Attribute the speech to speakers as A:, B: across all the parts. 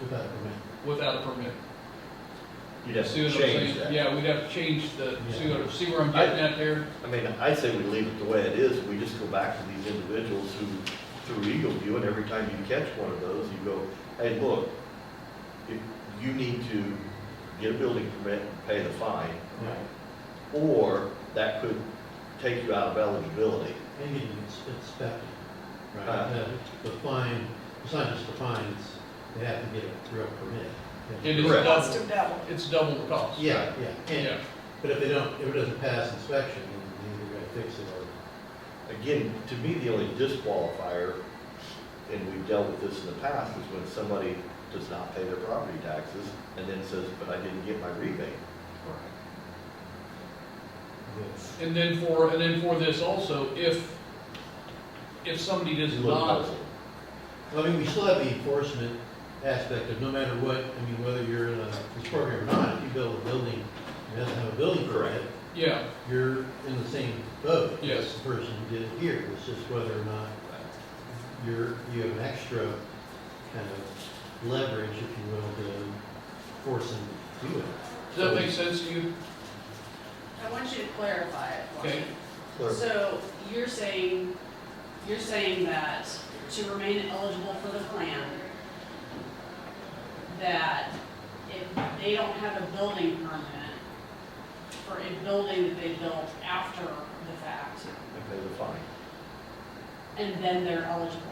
A: without a permit.
B: without a permit.
C: You'd have
B: See
C: to
B: what I'm saying?
C: change that.
B: Yeah, we'd have to change the, see
A: Yeah.
B: what, see where I'm getting at there?
C: I mean, I'd say we leave it the way it is, we just go back to these individuals who, through Eagle View, and every time you catch one of those, you go, hey, look, if you need to get a building permit and pay the fine,
A: Right.
C: or that could take you out of eligibility.
A: And it's, it's that, right?
C: Uh.
A: Uh, The fine, it's not just the fines, they have to get a real permit. They
B: It
A: have
B: is
A: to-
C: Correct.
B: double,
D: Cost of double.
B: it's double the cost.
A: Yeah, yeah.
B: Yeah,
A: And, but if they don't, if it doesn't pass inspection, then you gotta fix it or.
C: Again, to me, the only disqualifier, and we've dealt with this in the past, is when somebody does not pay their property taxes and then says, but I didn't get my rebate.
B: and then for, and then for this also, if, if somebody does
C: It's a little
B: not,
C: puzzling.
A: Well, I mean, we still have the enforcement aspect of no matter what, I mean, whether you're in a, this program or not, if you build a building, and doesn't have a building permit,
B: yeah,
A: you're in the same boat. as
B: Yes.
A: The person who did it here, it's just whether or not you're, you have an extra kind of leverage, if you will, to force them to do it.
B: does that make sense to you?
D: I want you to clarify it for
B: Okay.
D: me. So you're saying, you're saying that to remain eligible for the plan, that if they don't have a building permit for a building that they built after the fact,
C: They pay the fine.
D: and then they're eligible.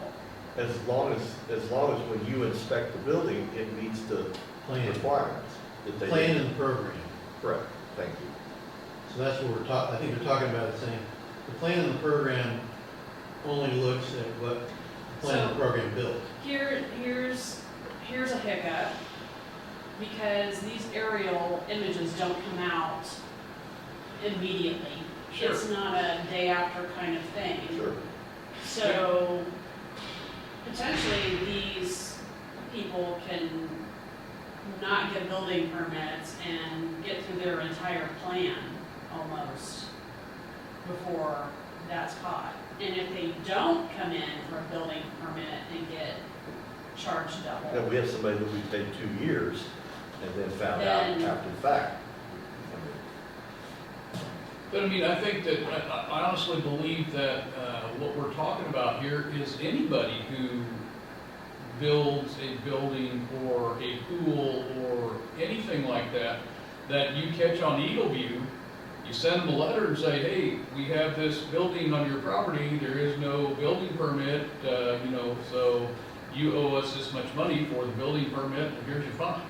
C: As long as, as long as when you inspect the building, it meets the
A: Plan,
C: requirements that they.
A: plan and program.
C: Correct, thank you.
A: So that's what we're talking, I think we're talking about, is saying, the plan and the program only looks at what the plan and the
D: So-
A: program built.
D: Here, here's, here's a hiccup, because these aerial images don't come out immediately.
B: Sure.
D: It's not a day after kind of thing.
C: Sure.
D: So potentially, these people can not get building permits and get through their entire plan almost before that's caught. And if they don't come in for a building permit and get charged
C: Now,
D: double,
C: we have somebody that we paid two years and then found out
D: Then-
C: after the fact.
B: But I mean, I think that, I, I- I honestly believe that, uh, what we're talking about here is anybody who builds a building or a pool or anything like that, that you catch on Eagle View, you send them a letter and say, hey, we have this building on your property, there is no building permit, uh, you know, so you owe us this much money for the building permit, and here's your fine.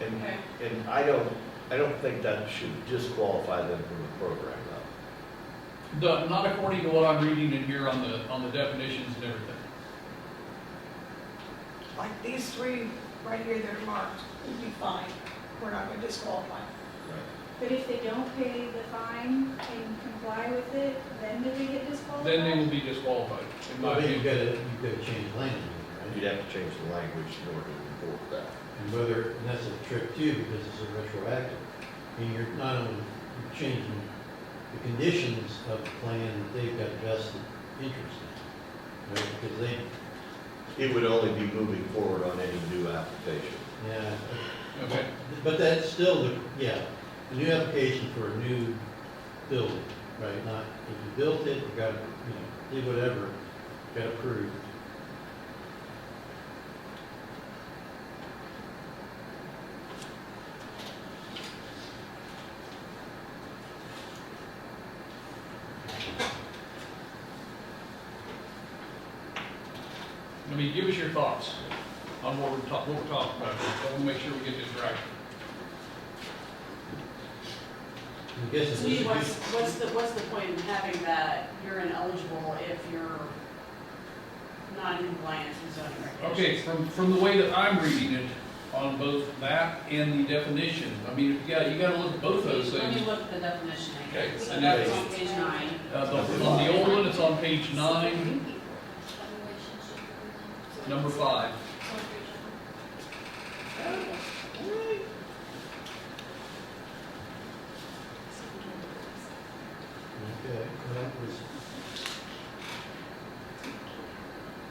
C: And,
D: Okay.
C: and I don't, I don't think that should disqualify them from the program, though.
B: The- Not according to what I'm reading in here on the, on the definitions and everything.
E: like these three right here that are marked, would be fine. We're not gonna disqualify.
F: But if they don't pay the fine and comply with it, then do they get disqualified?
B: then they will be disqualified, in my
A: Well, then you've
B: opinion.
A: got to, you've got to change language, right?
C: You'd have to change the language in order to report that.
A: And whether, and that's a trick too, because it's a retroactive. And you're not only you're changing the conditions of the plan that they've got vested interest in, right? Because they,
C: It would only be moving forward on any new application.
A: yeah,
B: Okay,
A: but that's still, the yeah, a new application for a new building, right? Not, if you built it, you got, you know, did whatever, got approved.
B: I mean, give us your thoughts on what we're talking, what we're talking about, I want to make sure we get this right.
A: I guess it's.
D: so you- what's, what's the, what's the point in having that you're ineligible if you're not in compliance with zoning regulations?
B: Okay, from, from the way that I'm reading it, on both that and the definition, I mean, you gotta, you gotta look at both those
D: Let me
B: things.
D: look at the definition
B: Okay,
D: again. So
B: and
D: that's
B: that's-
D: on page nine.
B: Uh, the, on the old one, it's on page nine, number five.
A: Okay, well, that was